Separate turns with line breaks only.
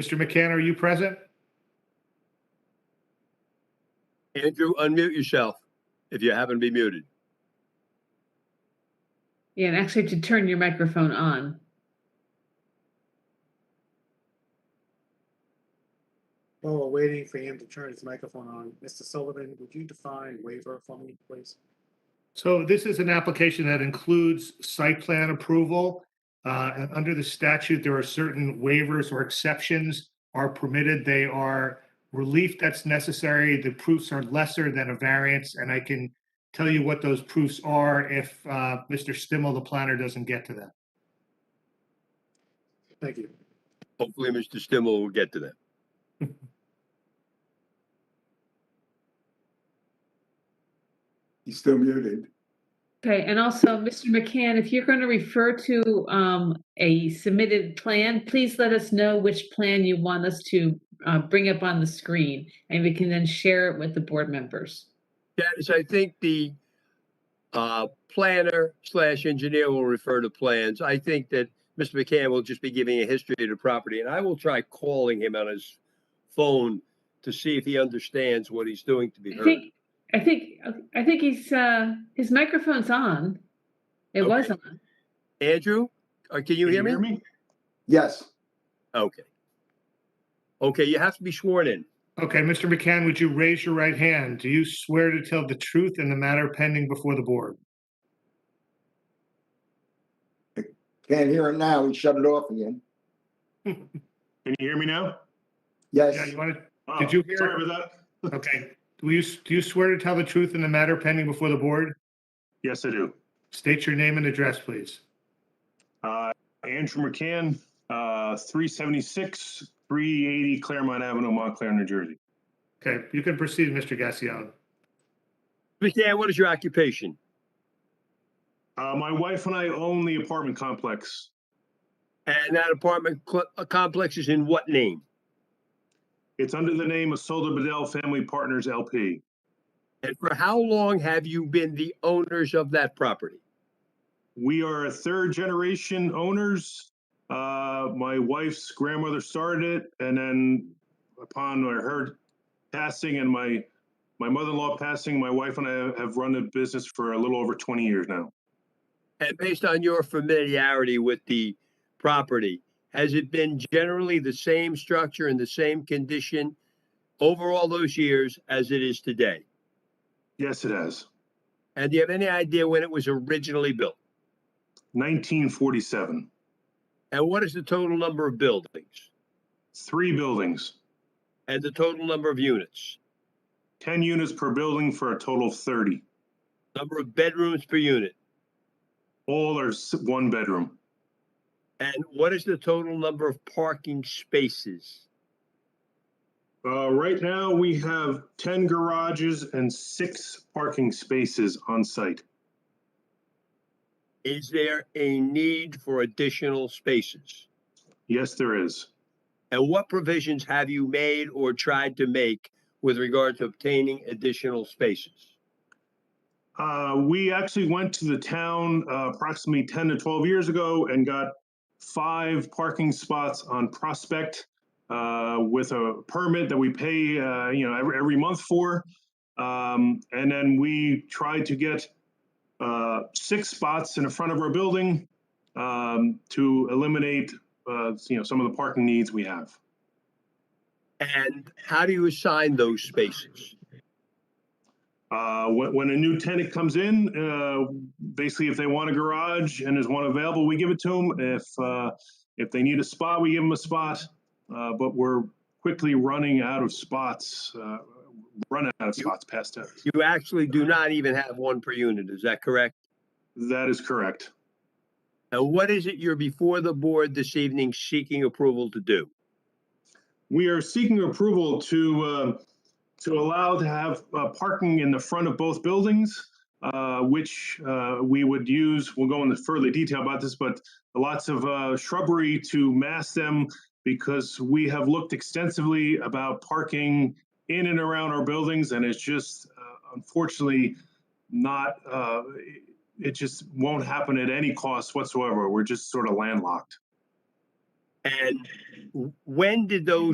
Mr. McCann, are you present?
Andrew, unmute yourself if you happen to be muted.
Yeah, and actually to turn your microphone on.
While we're waiting for him to turn his microphone on, Mr. Sullivan, would you define waiver for me, please?
So this is an application that includes site plan approval. Uh, and under the statute, there are certain waivers or exceptions are permitted. They are relief that's necessary. The proofs are lesser than a variance, and I can tell you what those proofs are if uh, Mr. Stimmel, the planner, doesn't get to them.
Thank you.
Hopefully, Mr. Stimmel will get to that.
He's still muted.
Okay, and also, Mr. McCann, if you're going to refer to um, a submitted plan, please let us know which plan you want us to uh, bring up on the screen, and we can then share it with the board members.
Dennis, I think the uh, planner slash engineer will refer to plans. I think that Mr. McCann will just be giving a history of the property, and I will try calling him on his phone to see if he understands what he's doing to be
I
heard.
think, I think, I think he's, uh, his microphone's on. It was
Okay.
on.
Andrew, uh, can you hear me?
Yes,
Okay. Okay, you have to be sworn in.
Okay, Mr. McCann, would you raise your right hand? Do you swear to tell the truth in the matter pending before the board?
can't hear him now. He shut it off again.
Can you hear me now?
Yeah,
Yes,
you want to,
Oh,
Did you hear-
Sorry about that.
okay. Do you, do you swear to tell the truth in the matter pending before the board?
Yes, I do.
State your name and address, please.
Uh, Andrew McCann, uh, 376, 380 Claremont Avenue, Montclair, New Jersey.
Okay, you can proceed, Mr. Gassion.
McCann, what is your occupation?
Uh, my wife and I own the apartment complex.
And that Uh, apartment cl- uh, complex is in what name?
It's under the name of Solda Bedell Family Partners LP.
And for how long have you been the owners of that property?
We are a third generation owners. Uh, my wife's grandmother started it, and then upon her passing and my my mother-in-law passing, my wife and I have run the business for a little over 20 years now.
And based on your familiarity with the property, has it been generally the same structure and the same condition over all those years as it is today?
Yes, it has.
And do you have any idea when it was originally built?
1947.
And what is the total number of buildings
Three buildings,
and the total number of units,
10 units per building for a total of 30.
number of bedrooms per unit?
All are s- one bedroom,
And what is the total number of parking spaces?
Uh, right now, we have 10 garages and six parking spaces on site.
Is there a need for additional spaces?
Yes, there is.
And what provisions have you made or tried to make with regard to obtaining additional spaces?
Uh, we actually went to the town uh, approximately 10 to 12 years ago and got five parking spots on Prospect uh, with a permit that we pay, uh, you know, every, every month for. Um, and then we tried to get uh, six spots in the front of our building um, to eliminate, uh, you know, some of the parking needs we have.
And how do you assign those spaces?
Uh, when, when a new tenant comes in, uh, basically if they want a garage and there's one available, we give it to them. If, uh, if they need a spot, we give them a spot. Uh, but we're quickly running out of spots, uh, run out of spots past that.
You actually do not even have one per unit, is that correct?
That is correct.
And what is it you're before the board this evening seeking approval to do?
We are seeking approval to, uh, to allow to have uh, parking in the front of both buildings, uh, which uh, we would use, we'll go into further detail about this, but lots of uh, shrubbery to mask them because we have looked extensively about parking in and around our buildings and it's just uh, unfortunately not, uh, it- it just won't happen at any cost whatsoever. We're just sort of landlocked.
And w- when did those